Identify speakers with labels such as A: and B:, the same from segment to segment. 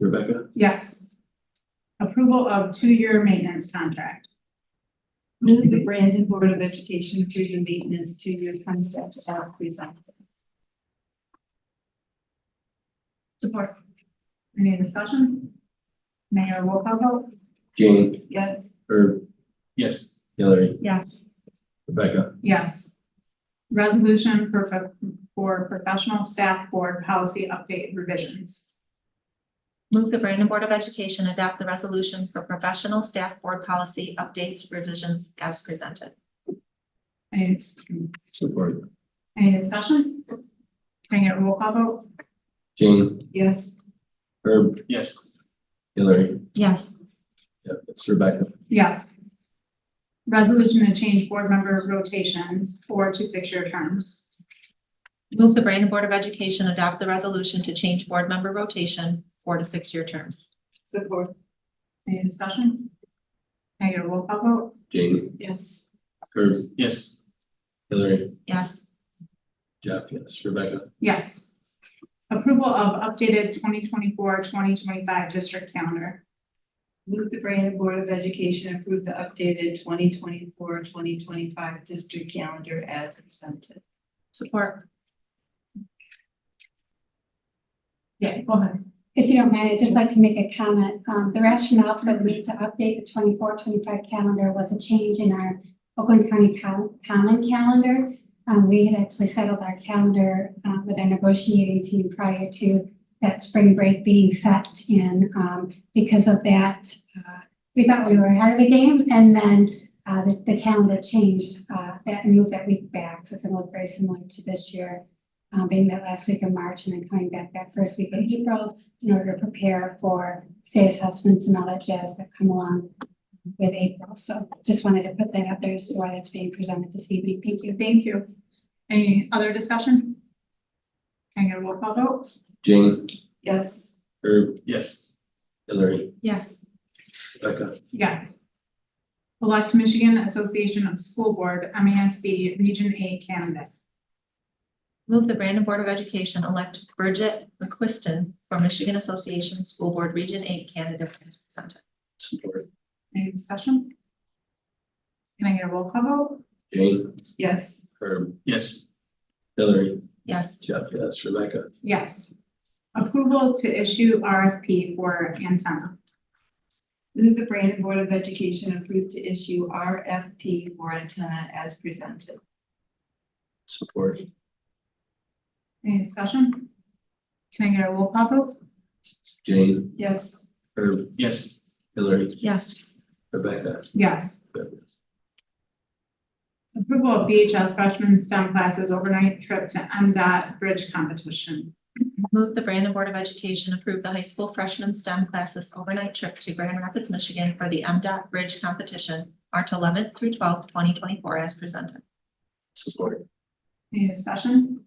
A: Rebecca?
B: Yes. Approval of two-year maintenance contract.
C: Move the Brandon Board of Education through the maintenance two-year contract as presented.
B: Support. Any discussion? Mayor roll call vote?
A: Jane?
C: Yes,
A: Herb? Yes. Hillary?
B: Yes.
A: Rebecca?
B: Yes. Resolution for, pro- for professional staff board policy update revisions.
D: Move the Brandon Board of Education adopt the resolution for professional staff board policy updates revisions as presented.
B: Any,
A: Support.
B: any discussion? Can I get a roll call vote?
A: Jane?
C: yes,
A: Herb? Yes. Hillary?
D: Yes.
A: Yep, it's Rebecca.
B: Yes. Resolution to change board member rotations for to six-year terms.
D: Move the Brandon Board of Education adopt the resolution to change board member rotation four to six-year terms.
C: support,
B: Any discussion? Can I get a roll call vote?
A: Jane?
C: yes,
A: Herb? Yes. Hillary?
D: Yes.
A: Jeff? Yes. Rebecca?
B: Yes. Approval of updated 2024-2025 district calendar.
C: move the Brandon Board of Education approve the updated 2024-2025 district calendar as presented.
D: Support.
B: Yeah, go ahead.
E: If you don't mind, I'd just like to make a comment. Um, the rationale for the need to update the 24-25 calendar was a change in our Oakland County Col- Common Calendar. Um, we had actually settled our calendar, uh, with our negotiating team prior to that spring break being set in. Um, because of that, uh, we thought we were ahead of the game and then, uh, the, the calendar changed, uh, that moved that week back. So it's gonna look very similar to this year, um, being that last week of March and then coming back that first week in April in order to prepare for state assessments and all that jazz that come along with April. So just wanted to put that out there as to why that's being presented this evening. Thank you.
B: Thank you. Any other discussion? Can I get a roll call vote?
A: Jane?
C: Yes,
A: Herb? Yes. Hillary?
D: Yes.
A: Rebecca?
B: Yes. Elect Michigan Association of School Board, MASB Region A candidate.
D: Move the Brandon Board of Education elect Bridget McQuiston for Michigan Association School Board Region Eight candidate as presented.
A: Support.
B: Any discussion? Can I get a roll call vote?
A: Jane?
C: yes,
A: Herb? Yes. Hillary?
D: Yes.
A: Jeff? Yes. Rebecca?
B: Yes. Approval to issue RFP for antenna.
C: move the Brandon Board of Education approve to issue RFP for antenna as presented.
A: Support.
B: Any discussion? Can I get a roll call vote?
A: Jane?
C: Yes,
A: Herb? Yes. Hillary?
D: Yes.
A: Rebecca?
B: Yes. Approval of BHS freshman STEM classes overnight trip to MDOT bridge competition.
D: Move the Brandon Board of Education approve the high school freshman STEM classes overnight trip to Grand Rapids, Michigan for the MDOT Bridge Competition, March eleventh through twelfth, twenty twenty-four as presented.
A: Support.
B: Any discussion?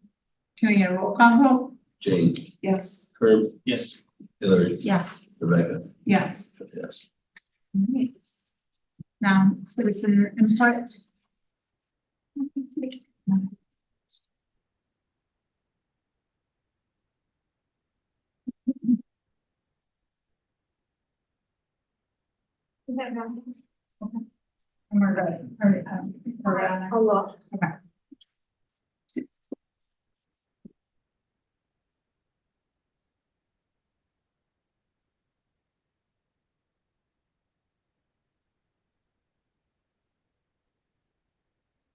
B: Can I get a roll call vote?
A: Jane?
C: yes,
A: Herb? Yes. Hillary?
D: Yes.
A: Rebecca?
B: Yes.
A: Jeff? Yes.
B: Now, citizen input. Okay. And we're good, or, um, we're good on that? Okay.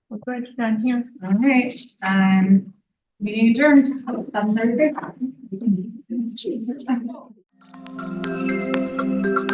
D: We're good down here.
B: All right, um, meeting adjourned, seven thirty.